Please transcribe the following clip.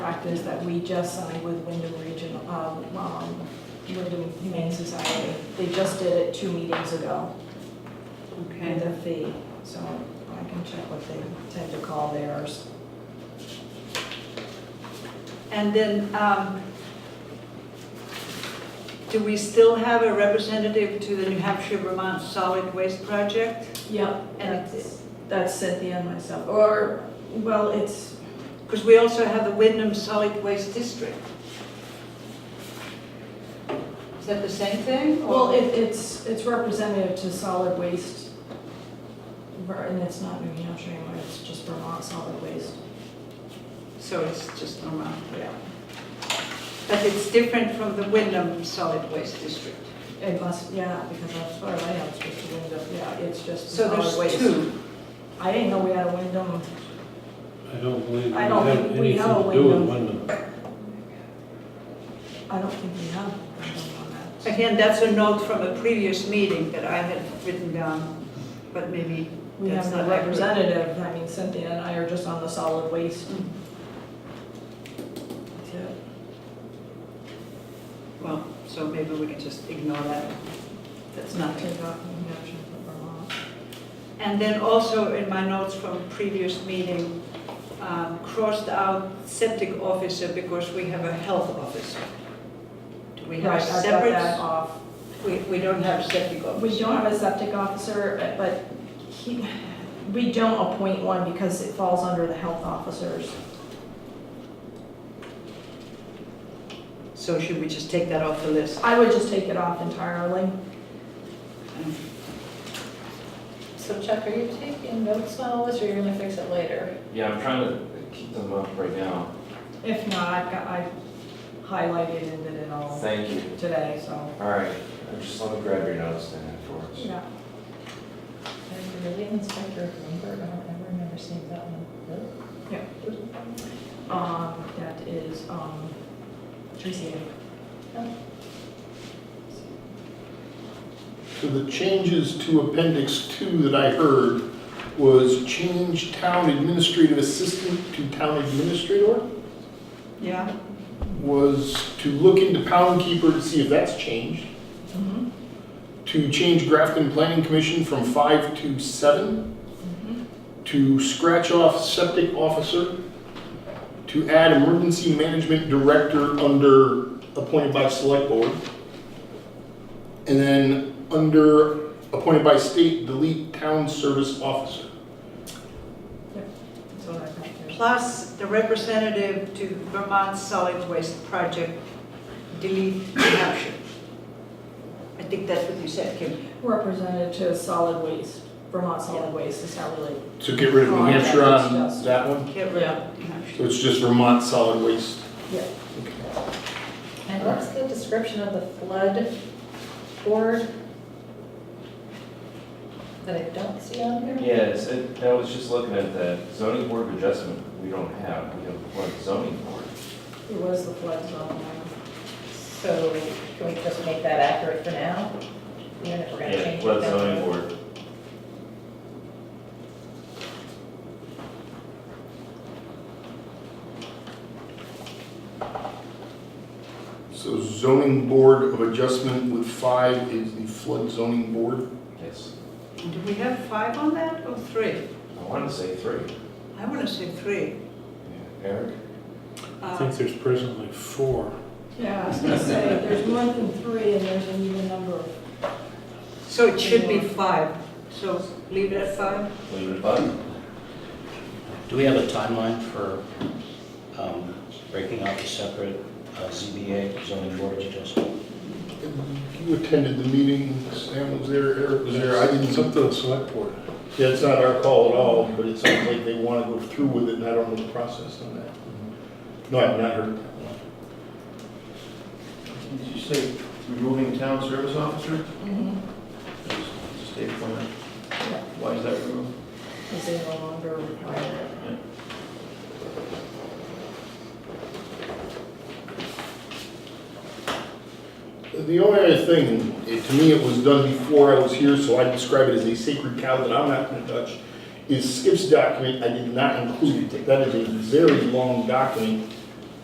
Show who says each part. Speaker 1: chapters that we just signed with Wyndham Regional, um, um, Wyndham Humane Society. They just did it two meetings ago with
Speaker 2: Okay,
Speaker 1: a fee, so I can check what they tend to call theirs.
Speaker 2: and then, um, do we still have a representative to the New Hampshire Vermont Solid Waste Project?
Speaker 1: Yep,
Speaker 2: And
Speaker 1: that's, that's Cynthia and myself, or, well, it's,
Speaker 2: Because we also have the Wyndham Solid Waste District. Is that the same thing? or-
Speaker 1: well, it, it's, it's representative to solid waste. Ver- And it's not New Hampshire anymore, it's just Vermont Solid Waste.
Speaker 2: So it's just normal.
Speaker 1: Yeah.
Speaker 2: But it's different from the Wyndham Solid Waste District.
Speaker 1: It must, yeah, because that's where I am, it's just a window, yeah, it's just
Speaker 2: So
Speaker 1: solid
Speaker 2: there's
Speaker 1: waste.
Speaker 2: two.
Speaker 1: I didn't know we had a window.
Speaker 3: I don't believe we
Speaker 1: I
Speaker 3: have
Speaker 1: don't think we
Speaker 3: anything
Speaker 1: have a
Speaker 3: to do with
Speaker 1: window.
Speaker 3: Wyndham.
Speaker 1: I don't think we have a window on that.
Speaker 2: Again, that's a note from a previous meeting that I had written down, but maybe
Speaker 1: We have
Speaker 2: that's not
Speaker 1: no
Speaker 2: accurate.
Speaker 1: representative, I mean Cynthia and I are just on the solid waste.
Speaker 2: Mm.
Speaker 1: That's it.
Speaker 2: Well, so maybe we can just ignore that. That's nothing.
Speaker 1: Take off New Hampshire for Vermont.
Speaker 2: And then also in my notes from previous meeting, um, crossed out septic officer because we have a health officer. Do we have
Speaker 1: Right,
Speaker 2: a
Speaker 1: I got that
Speaker 2: separate?
Speaker 1: off.
Speaker 2: We, we don't have septic officer.
Speaker 1: We don't have a septic officer, but he, we don't appoint one because it falls under the health officers.
Speaker 2: So should we just take that off the list?
Speaker 1: I would just take it off entirely.
Speaker 4: So Chuck, are you taking notes on all this, or you're gonna fix it later?
Speaker 5: Yeah, I'm trying to keep them up right now.
Speaker 1: If not, I've got, I highlighted and did it all
Speaker 5: Thank you.
Speaker 1: today, so.
Speaker 5: All right, just let me grab your notes then afterwards.
Speaker 1: Yeah.
Speaker 4: I'm really inspector of Bloomberg, I don't ever remember seeing that one.
Speaker 1: Yeah. Um, that is, um, Tracy.
Speaker 6: So the changes to appendix two that I heard was change town administrative assistant to town administrator?
Speaker 2: Yeah,
Speaker 6: Was to look into pound keeper to see if that's changed.
Speaker 1: Mhm.
Speaker 6: To change Grafton Planning Commission from five to seven. To scratch off septic officer. To add emergency management director under appointed by select board. And then under appointed by state, delete town service officer.
Speaker 1: That's what I got there.
Speaker 2: plus the representative to Vermont Solid Waste Project, delete New Hampshire. I think that's what you said, Kim.
Speaker 1: Representative to solid waste, Vermont Solid Waste is how we like.
Speaker 6: So get rid of New Hampshire on that one?
Speaker 2: Get rid of New Hampshire.
Speaker 6: So it's just Vermont solid waste?
Speaker 1: Yeah.
Speaker 4: And what's the description of the flood board? That I don't see on here?
Speaker 5: Yeah, it's, it, I was just looking at that zoning board of adjustment, we don't have, we have one zoning board.
Speaker 1: It was the flood zone.
Speaker 4: So can we just make that accurate for now? Even if we're gonna
Speaker 5: Yeah,
Speaker 4: change it.
Speaker 5: flood
Speaker 4: down the
Speaker 5: zoning
Speaker 4: road?
Speaker 5: board.
Speaker 6: So zoning board of adjustment with five is the flood zoning board.
Speaker 5: Yes,
Speaker 2: Do we have five on that or three?
Speaker 5: I wanted to say three.
Speaker 2: I want to say three.
Speaker 5: Yeah, Eric?
Speaker 3: I
Speaker 2: Uh,
Speaker 3: think there's presently four.
Speaker 1: Yeah, I was gonna say, there's more than three and there's an even number of
Speaker 2: So it should be five, so leave it at five?
Speaker 5: Leave it at five?
Speaker 7: Do we have a timeline for um, breaking out the separate uh, ZBA zoning board of adjustment?
Speaker 6: You attended the meeting, Sam was there, Eric was there, I
Speaker 3: It's up
Speaker 6: didn't.
Speaker 3: to the select board.
Speaker 6: Yeah, it's not our call at all, but it sounds like they want to go through with it, and I don't know the process on that. No, I've not heard.
Speaker 8: Did you say removing town service officer?
Speaker 1: Mhm.
Speaker 8: Just State appointment? Why is that removed?
Speaker 1: Is it no longer required?
Speaker 6: The only other thing, it- to me, it was done before I was here, so I describe it as a sacred cow that I'm not gonna touch, is Skip's document, I did not include it. That is a very long document